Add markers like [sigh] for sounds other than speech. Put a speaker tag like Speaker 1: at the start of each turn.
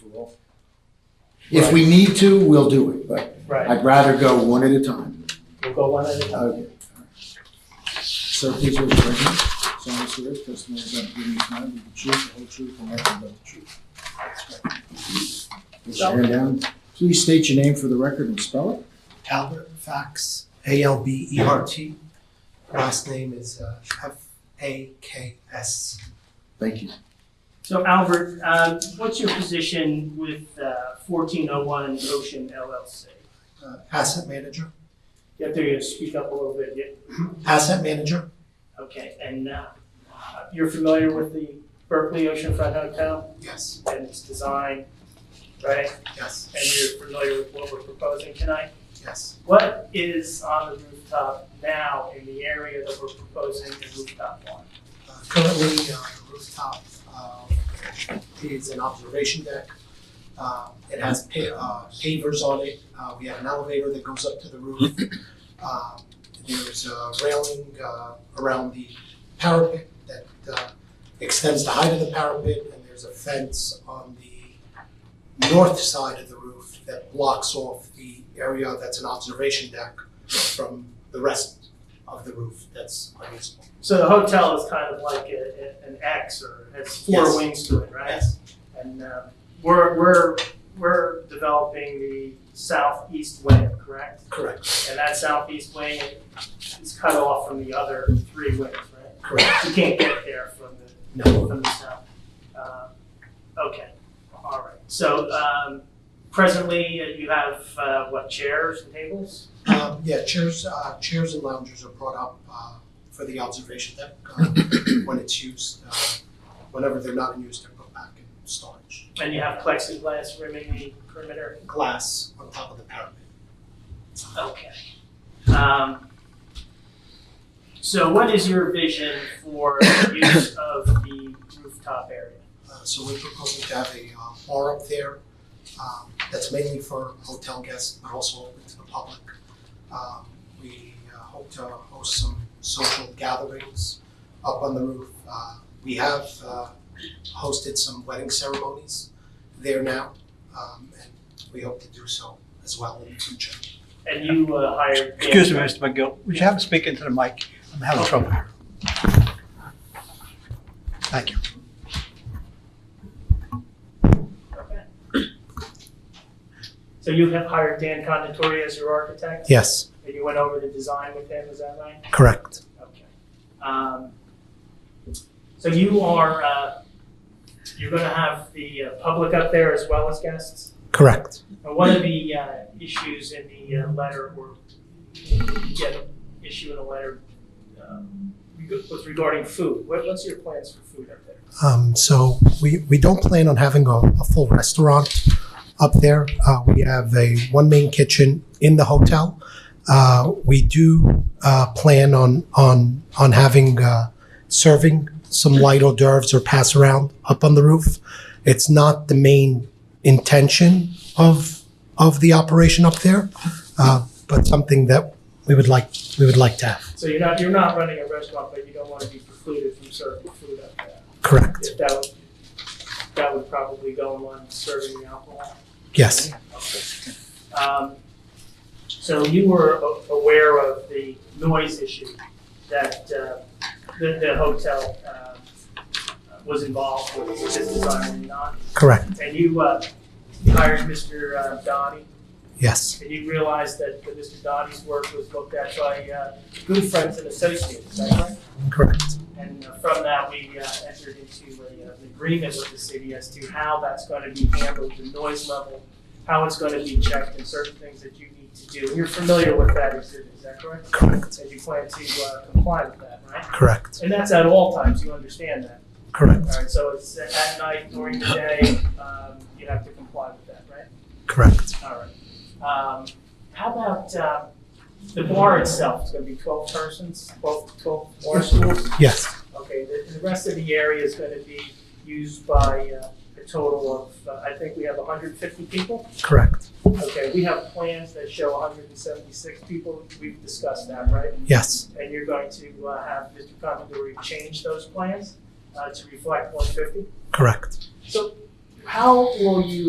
Speaker 1: twelve.
Speaker 2: If we need to, we'll do it, but
Speaker 1: Right,
Speaker 2: I'd rather go one at a time.
Speaker 1: we'll go one at a time.
Speaker 2: Okay. Sir, please raise your right hand. Solemnly swear the testimony you're about to give in this matter will be the truth, the whole truth, and nothing but the truth. Put your hand down. Please state your name for the record and spell it.
Speaker 3: Albert Fax, A L B E R T. Last name is uh, F A K S.
Speaker 2: Thank you.
Speaker 4: So Albert, um, what's your position with uh, 1401 Ocean LLC?
Speaker 3: Uh, asset manager.
Speaker 4: You have to speak up a little bit, yeah?
Speaker 3: Asset manager.
Speaker 4: Okay, and uh, you're familiar with the Berkeley Oceanfront Hotel
Speaker 3: Yes.
Speaker 4: and its design, right?
Speaker 3: Yes.
Speaker 4: And you're familiar with what we're proposing tonight?
Speaker 3: Yes.
Speaker 4: What is on the rooftop now in the area that we're proposing the rooftop on?
Speaker 3: Uh, currently, uh, the rooftop uh, is an observation deck. Uh, it has pa- uh, pavers on it. Uh, we have an elevator that goes up to the roof. Um, there's a railing uh, around the parapet that uh, extends the height of the parapet, and there's a fence on the north side of the roof that blocks off the area that's an observation deck from the rest of the roof that's unusable.
Speaker 4: So the hotel is kind of like a- a- an X or has four
Speaker 3: Yes.
Speaker 4: wings to it, right?
Speaker 3: Yes.
Speaker 4: And um, we're, we're, we're developing the southeast wing, correct?
Speaker 3: Correct,
Speaker 4: And that southeast wing is cut off from the other three wings, right?
Speaker 3: correct.
Speaker 4: You can't get there from the,
Speaker 3: No,
Speaker 4: from the south. Um, Okay, all right. So um, presently, uh, you have, uh, what, chairs and tables?
Speaker 3: um, yeah, chairs, uh, chairs and loungers are brought up, uh, for the observation deck, uh, when it's used. uh, Whenever they're not in use, they're put back in storage.
Speaker 4: And you have plexiglass rimming the perimeter?
Speaker 3: Glass on top of the parapet.
Speaker 4: Okay. Um, So what is your vision for the
Speaker 5: [coughs]
Speaker 4: use of the rooftop area?
Speaker 3: Uh, so we're proposing to have a, uh, bar up there, um, that's mainly for hotel guests, but also open to the public. Um, we uh, hope to host some social gatherings up on the roof. Uh, we have, uh, hosted some wedding ceremonies there now, um, and we hope to do so as well in the future.
Speaker 4: And you uh, hired. Dan-
Speaker 5: Excuse me, Mr. McGill, would you have him speak into the mic? I'm having trouble here. Thank you.
Speaker 4: Okay. So you have hired Dan Conditori as your architect?
Speaker 3: Yes,
Speaker 4: And you went over the design with him, is that right?
Speaker 3: correct.
Speaker 4: Okay. Um, So you are, uh, you're going to have the uh, public up there as well as guests?
Speaker 3: Correct.
Speaker 4: And one of the uh, issues in the uh, letter, or you get an issue in a letter, um, reg- was regarding food. What, what's your plans for food up there?
Speaker 3: Um, so we, we don't plan on having a, a full restaurant up there. Uh, we have a one main kitchen in the hotel. Uh, we do uh, plan on on on having uh, serving some light hors d'oeuvres or pass around up on the roof. It's not the main intention of of the operation up there, uh, but something that we would like we would like to have.
Speaker 4: So you're not, you're not running a restaurant, but you don't want to be precluded from serving food up there.
Speaker 3: Correct.
Speaker 4: If that would, that would probably go along with serving the alcohol.
Speaker 3: Yes.
Speaker 4: Um, So you were a- aware of the noise issue that uh, the, the hotel um, was involved with with this design and not?
Speaker 3: Correct.
Speaker 4: and you uh, hired Mr. uh, Donnie,
Speaker 3: Yes.
Speaker 4: and you realized that that Mr. Donnie's work was looked at by uh, good friends and associates, is that right?
Speaker 3: Correct.
Speaker 4: And uh, from that, we uh, entered into a, uh, an agreement with the city as to how that's going to be handled, the noise level, how it's going to be checked, and certain things that you need to do. You're familiar with that exhibit, is that correct?
Speaker 3: Correct.
Speaker 4: And you plan to uh, comply with that, right?
Speaker 3: Correct.
Speaker 4: And that's at all times, you understand that?
Speaker 3: Correct.
Speaker 4: All right, so it's at night, during the day, um, you have to comply with that, right?
Speaker 3: Correct.
Speaker 4: All right. Um, how about, uh, the bar itself, it's gonna be twelve persons, twelve, twelve bar stools?
Speaker 3: Yes.
Speaker 4: Okay, the, the rest of the area is gonna be used by, uh, a total of, uh, I think we have hundred and fifty people?
Speaker 3: Correct.
Speaker 4: Okay, we have plans that show hundred and seventy-six people, we've discussed that, right?
Speaker 3: Yes.
Speaker 4: And you're going to, uh, have Mr. Commodore change those plans, uh, to reflect one fifty?
Speaker 3: Correct.
Speaker 4: So how will you